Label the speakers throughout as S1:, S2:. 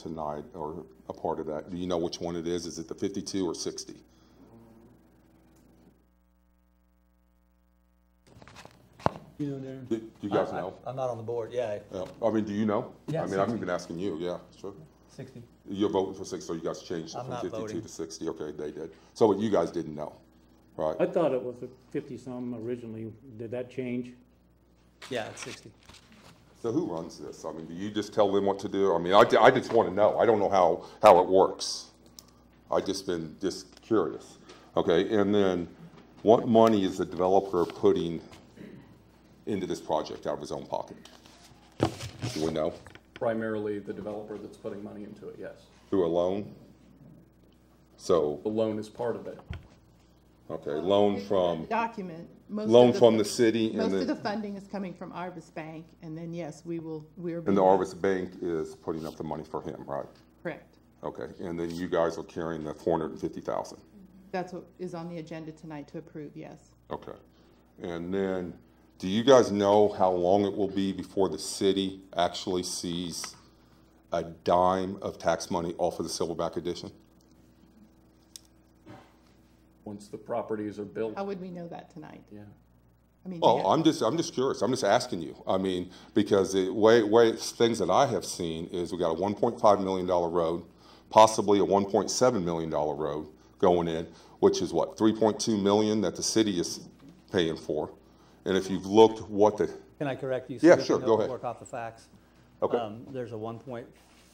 S1: tonight or a part of that. Do you know which one it is? Is it the 52 or 60?
S2: You know, Darren?
S1: Do do you guys know?
S3: I'm not on the board, yeah,
S1: Yeah. Uh, I mean, do you know?
S3: Yeah,
S1: I mean, I've
S3: 60.
S1: been asking you, yeah, sure.
S3: sixty.
S1: You're voting for 60, so you guys changed it
S3: I'm
S1: from
S3: not
S1: 52
S3: voting.
S1: to 60. Okay, they did. So you guys didn't know, right?
S2: I thought it was a fifty-some originally. Did that change?
S3: Yeah, it's sixty.
S1: So who runs this? I mean, do you just tell them what to do? I mean, I, I just want to know. I don't know how, how it works. I just been just curious. Okay, and then what money is the developer putting into this project out of his own pocket? Do we know?
S4: primarily the developer that's putting money into it, yes.
S1: Through a loan? So,
S4: The loan is part of it.
S1: okay, loan from,
S5: Document. Most of
S1: loan from the city and
S5: Most of the
S1: the,
S5: funding is coming from Arvis Bank, and then, yes, we will, we're.
S1: and the Arvis Bank is putting up the money for him, right?
S5: Correct.
S1: Okay, and then you guys are carrying the four hundred and fifty thousand?
S5: That's what is on the agenda tonight to approve, yes.
S1: Okay. And then, do you guys know how long it will be before the city actually sees a dime of tax money off of the Silverback addition?
S4: Once the properties are built,
S5: How would we know that tonight?
S4: yeah.
S5: I mean, they
S1: Well,
S5: have-
S1: Oh, I'm just, I'm just curious. I'm just asking you. I mean, because the way, way, things that I have seen is we got a one point five million dollar road, possibly a one point seven million dollar road going in, which is what, three point two million that the city is paying for? And if you've looked what the,
S3: Can I correct you? so
S1: Yeah,
S3: we can
S1: sure, go
S3: know-
S1: ahead.
S3: Work off the facts.
S1: Okay.
S3: Um, There's a one point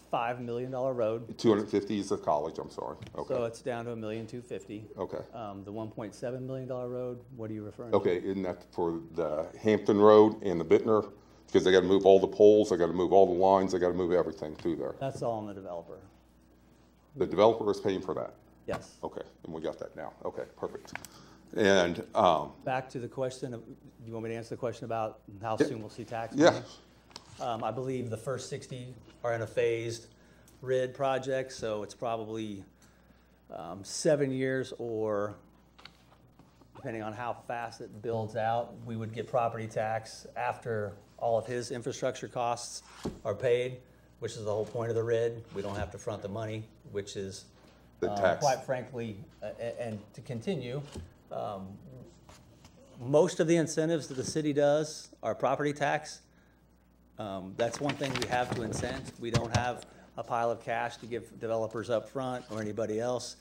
S3: five million dollar road,
S1: two hundred and fifty is the college, I'm sorry.
S3: so
S1: Okay,
S3: it's down to a million two fifty.
S1: okay.
S3: Um, the one point seven million dollar road, what are you referring to?
S1: Okay, isn't that for the Hampton Road and the Bittner? Because they gotta move all the poles, they gotta move all the lines, they gotta move everything through there.
S3: That's all on the developer,
S1: The developer is paying for that.
S3: yes.
S1: Okay, and we got that now. Okay, perfect. And, um,
S3: Back to the question of, do you want me to answer the question about how soon we'll see tax money?
S1: yeah,
S3: Um, I believe the first 60 are in a phased RID project, so it's probably um, seven years or, depending on how fast it builds out, we would get property tax after all of his infrastructure costs are paid, which is the whole point of the RID. We don't have to front the money, which is,
S1: The
S3: um,
S1: tax.
S3: quite frankly, a- a- and to continue, um, most of the incentives that the city does are property tax. Um, That's one thing we have to incent. We don't have a pile of cash to give developers up front or anybody else.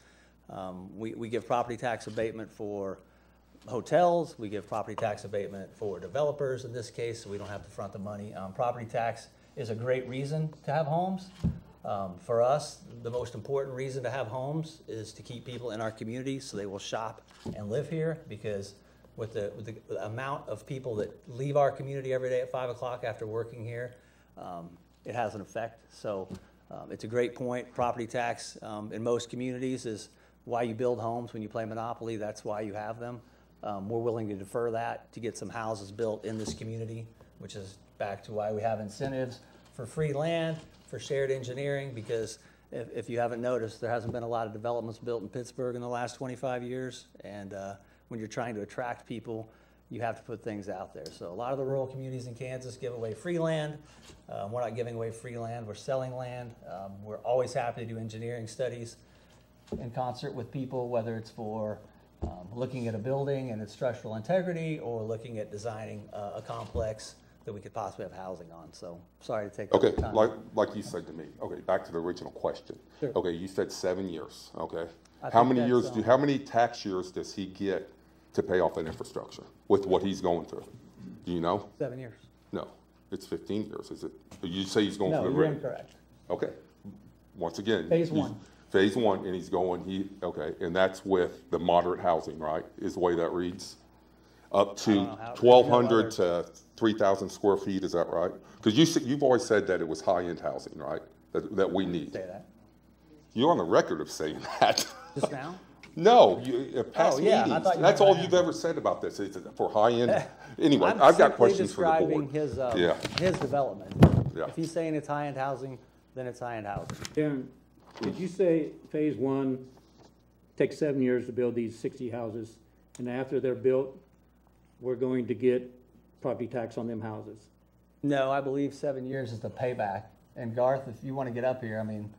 S3: Um, We, we give property tax abatement for hotels, we give property tax abatement for developers in this case, so we don't have to front the money. Um, Property tax is a great reason to have homes. Um, For us, the most important reason to have homes is to keep people in our community so they will shop and live here because with the, with the amount of people that leave our community every day at five o'clock after working here, um, it has an effect. So, um, it's a great point. Property tax, um, in most communities is why you build homes when you play Monopoly. That's why you have them. Um, we're willing to defer that to get some houses built in this community, which is back to why we have incentives for free land, for shared engineering, because if, if you haven't noticed, there hasn't been a lot of developments built in Pittsburgh in the last twenty-five years. And, uh, when you're trying to attract people, you have to put things out there. So a lot of the rural communities in Kansas give away free land. Um, we're not giving away free land, we're selling land. Um, we're always happy to do engineering studies in concert with people, whether it's for um, looking at a building and its structural integrity or looking at designing a, a complex that we could possibly have housing on. So sorry to take up
S1: okay,
S3: your time.
S1: like, like you said to me, okay, back to the original question.
S3: Sure.
S1: Okay, you said seven years, okay?
S3: I
S1: How
S3: think
S1: many
S3: that's,
S1: years do,
S3: um,
S1: how many tax years does he get to pay off that infrastructure with what he's going through? Do you know?
S3: Seven years.
S1: No, it's fifteen years, is it? You say he's going
S3: No,
S1: for the
S3: you're
S1: ring?
S3: incorrect.
S1: Okay, once again.
S3: Phase
S1: he's-
S3: one.
S1: Phase one, and he's going, he, okay, and that's with the moderate housing, right, is the way that reads? Up
S3: don't
S1: to
S3: know how-
S1: twelve
S3: no
S1: hundred to three thousand square feet, is that right? Because you, said- you've always said that it was high-end housing, right, that, that we need.
S3: Say that.
S1: You're on the record of saying that.
S3: Just now?
S1: No, you, at past
S3: Oh, yeah, I
S1: meetings,
S3: thought you
S1: that's
S3: meant
S1: all
S3: high-end.
S1: you've ever said about this, is it for high-end, anyway,
S3: I'm
S1: I've got
S3: simply
S1: questions for the
S3: describing
S1: board.
S3: his, uh,
S1: Yeah.
S3: his development.
S1: Yeah.
S3: If he's saying it's high-end housing, then it's high-end housing.
S2: Darren, did you say phase one takes seven years to build these sixty houses? And after they're built, we're going to get property tax on them houses?
S3: No, I believe seven years is the payback and Garth, if you want to get up here, I mean,